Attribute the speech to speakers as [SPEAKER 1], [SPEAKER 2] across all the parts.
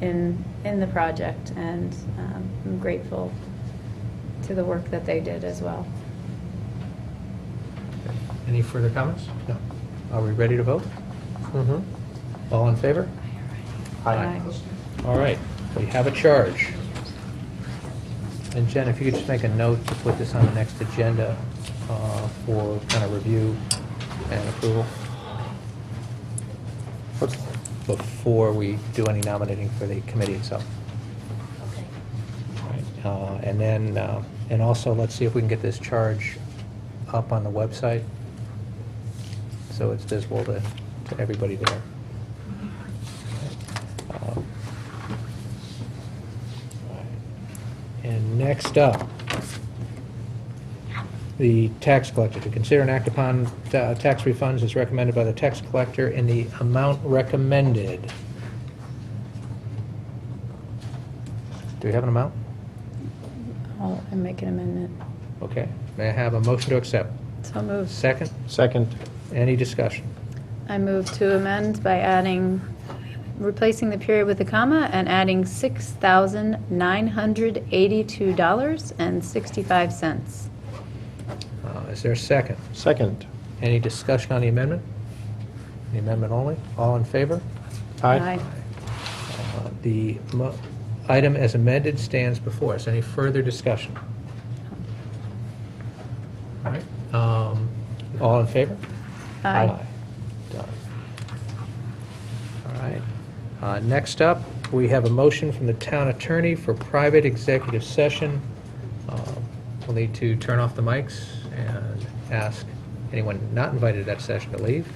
[SPEAKER 1] in, in the project, and um, I'm grateful to the work that they did as well.
[SPEAKER 2] Any further comments? No. Are we ready to vote? Mm-hmm. All in favor?
[SPEAKER 1] Aye.
[SPEAKER 2] All right, we have a charge. And Jen, if you could just make a note to put this on the next agenda uh, for kind of review and approval before we do any nominating for the committee itself. Right, uh, And then, uh, and also, let's see if we can get this charge up on the website, so it's visible to, to everybody there. Um, And next up, the tax collector, to consider and act upon uh, tax refunds as recommended by the tax collector in the amount recommended. Do we have an amount?
[SPEAKER 1] I'll I make an amendment.
[SPEAKER 2] Okay. May I have a motion to accept?
[SPEAKER 1] So moved.
[SPEAKER 2] Second?
[SPEAKER 3] Second.
[SPEAKER 2] Any discussion?
[SPEAKER 1] I move to amend by adding, replacing the period with a comma and adding $6,982.65.
[SPEAKER 2] Uh, Is there a second?
[SPEAKER 3] Second.
[SPEAKER 2] Any discussion on the amendment? The amendment only? All in favor?
[SPEAKER 3] Aye.
[SPEAKER 2] Uh, The mo- item as amended stands before us. Any further discussion? All right. um, All in favor?
[SPEAKER 1] Aye.
[SPEAKER 2] Done. All right. Uh, Next up, we have a motion from the town attorney for private executive session. Uh, We'll need to turn off the mics and ask anyone not invited to that session to leave.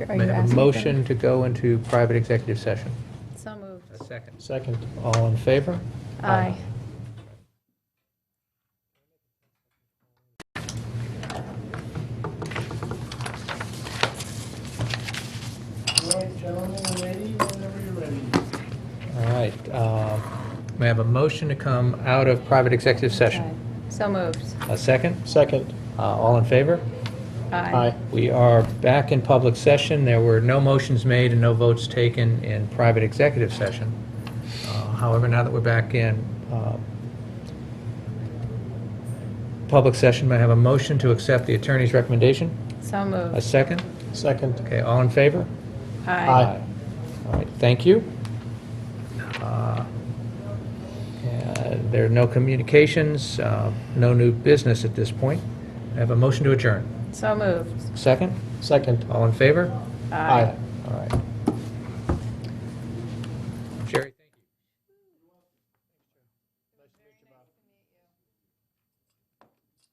[SPEAKER 1] Are
[SPEAKER 2] May
[SPEAKER 1] you
[SPEAKER 2] I
[SPEAKER 1] asking
[SPEAKER 2] have a
[SPEAKER 1] for-
[SPEAKER 2] motion to go into private executive session?
[SPEAKER 1] So moved.
[SPEAKER 2] A second.
[SPEAKER 3] Second.
[SPEAKER 2] All in favor?
[SPEAKER 1] Aye.
[SPEAKER 4] All right, gentlemen and ladies, whenever you're ready.
[SPEAKER 2] All right. um, May I have a motion to come out of private executive
[SPEAKER 1] Aye.
[SPEAKER 2] session?
[SPEAKER 1] So moved.
[SPEAKER 2] A second?
[SPEAKER 3] Second.
[SPEAKER 2] Uh, All in favor?
[SPEAKER 3] Aye.
[SPEAKER 2] We are back in public session. There were no motions made and no votes taken in private executive session. Uh, However, now that we're back in uh, public session, may I have a motion to accept the attorney's recommendation?
[SPEAKER 1] So
[SPEAKER 2] A
[SPEAKER 1] moved.
[SPEAKER 2] second?
[SPEAKER 3] Second.
[SPEAKER 2] Okay, all in favor?
[SPEAKER 3] Aye.
[SPEAKER 2] All right, thank you. Uh, and There are no communications, uh, no new business at this point. I have a motion to adjourn.
[SPEAKER 1] So moved.
[SPEAKER 2] Second?
[SPEAKER 3] Second.
[SPEAKER 2] All in favor?
[SPEAKER 3] Aye.
[SPEAKER 2] All right. Jerry, thank you.